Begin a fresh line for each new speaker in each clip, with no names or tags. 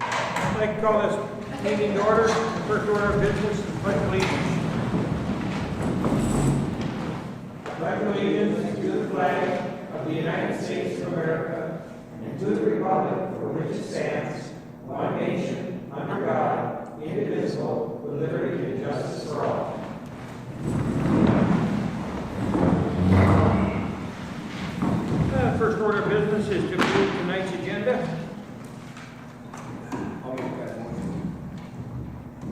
I'd like to call this meeting to order. The First order of business is pledge allegiance. Pledge allegiance to the flag of the United States of America and to the republic for which it stands, one nation, under God, indivisible, with liberty and justice for all. Uh, First order of business is to approve tonight's agenda. I'll make that motion.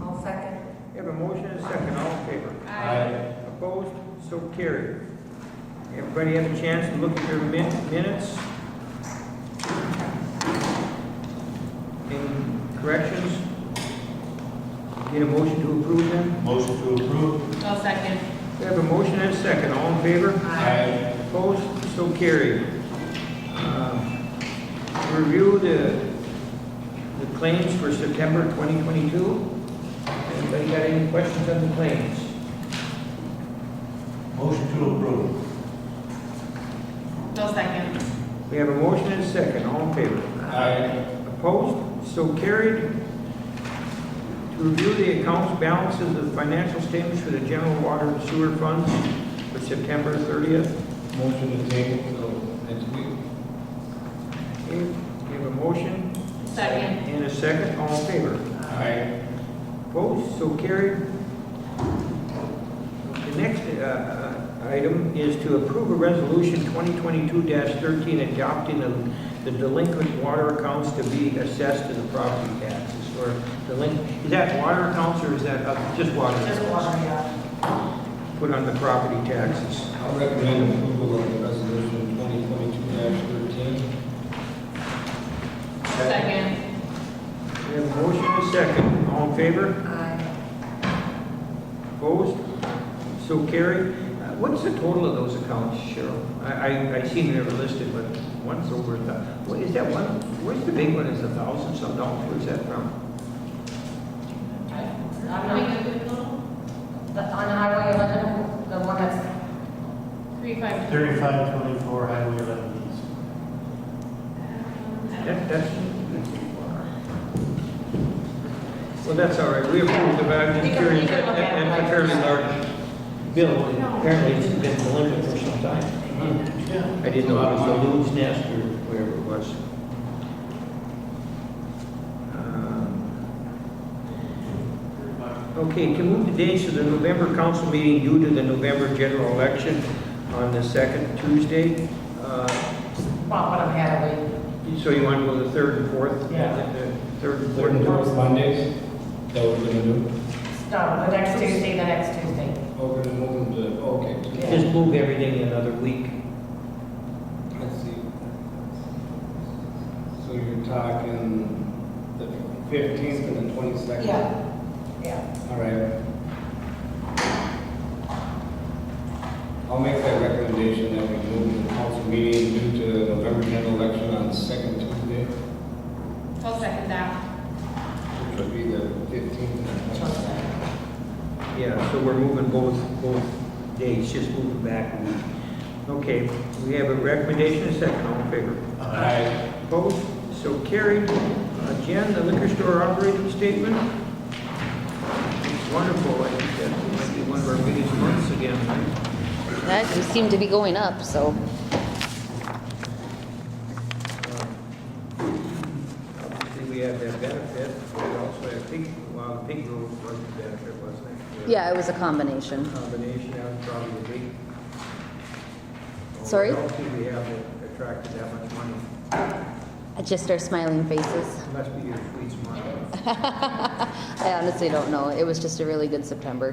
I'll second.
We have a motion and a second, all in favor?
Aye.
Opposed? So carried. Everybody have a chance to look at their min- minutes? Any corrections? Need a motion to approve them?
Motion to approve.
I'll second.
We have a motion and a second, all in favor?
Aye.
Opposed? So carried. Um, Review the, the claims for September 2022. Anybody got any questions on the claims?
Motion to approve.
I'll second.
We have a motion and a second, all in favor?
Aye.
Opposed? So carried. To review the accounts balances of financial statements for the general water and sewer funds for September 30th.
Motion to table till next week.
Okay, We have a motion
Second.
and a second, all in favor.
Aye.
Opposed? So carried. The next uh, uh, item is to approve a resolution 2022-13 adopting the- the delinquent water accounts to be assessed to the property taxes or delinquent. Is that water accounts or is that uh, just water?
Just water, yeah.
put on the property taxes.
I'll recommend approval of the resolution twenty twenty-two thirteen.
Second.
We have a motion and a second. All in favor?
Aye.
Opposed? So carried. Uh, What's the total of those accounts, Cheryl? I, I, I seen they were listed, but one's over a thou, what is that one? Where's the big one? Is a thousand some dollars? Where's that from?
How many did we go?
The, on Highway 11, the one that's,
Three, five.
Thirty-five twenty-four Highway eleven east.
That, that's. Well, that's all right. We approved the value.
You can- you can look at it
And a
like-
fairly large bill. Apparently it's been delinquent for some time.
Hmm.
Yeah.
I didn't know it was the loon's nest or wherever it was. Um, Okay, to move the dates of the November council meeting due to the November general election on the second Tuesday. uh,
well, what I'm having,
So you want to go the third and fourth?
Yeah.
The Third and
Third and
fourth.
fourth Mondays, that we're gonna do.
no, the next Tuesday, the next Tuesday.
Oh, we're gonna move them to, okay.
Yeah.
Just move everything another week.
Let's see. So you're talking the fifteenth and the twenty-second?
Yeah, yeah.
All right. I'll make that recommendation that we move the council meeting due to the November general election on the second Tuesday,
I'll second that.
which would be the fifteenth and the
Trust
22nd.
me.
Yeah, so we're moving both, both dates, just moving back a week. Okay, we have a recommendation, a second, all in favor?
Aye.
Opposed? So carried. Uh, Jen, the liquor store operating statement. It's wonderful, I think that might be one of our biggest months again. right?
That just seemed to be going up, so.
Um, Obviously, we have that benefit, we also have pig, well, the pig rule was the benefit, wasn't it?
Yeah, it was a combination.
Combination, that was probably the big.
Sorry?
I don't think we have that attracted that much money,
Just our smiling faces.
must be your sweet smile.
I honestly don't know. It was just a really good September.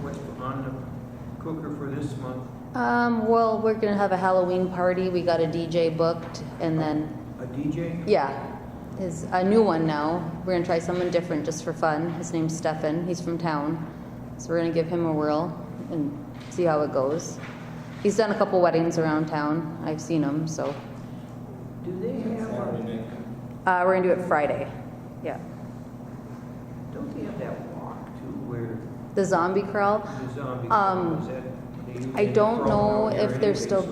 What's on the cooker for this month?
Um, well, we're gonna have a Halloween party. We got a DJ booked and then,
A DJ?
yeah, is a new one now. We're gonna try someone different just for fun. His name's Stefan. He's from town. So we're gonna give him a whirl and see how it goes. He's done a couple weddings around town. I've seen him, so.
Do they have, a-
Saturday night.
Uh, we're gonna do it Friday. Yeah.
don't they have that walk too where
The zombie crawl.
the zombie
Um,
is that? they
I
usually
don't
crawl
know
out there
if they're
anyway,
still
so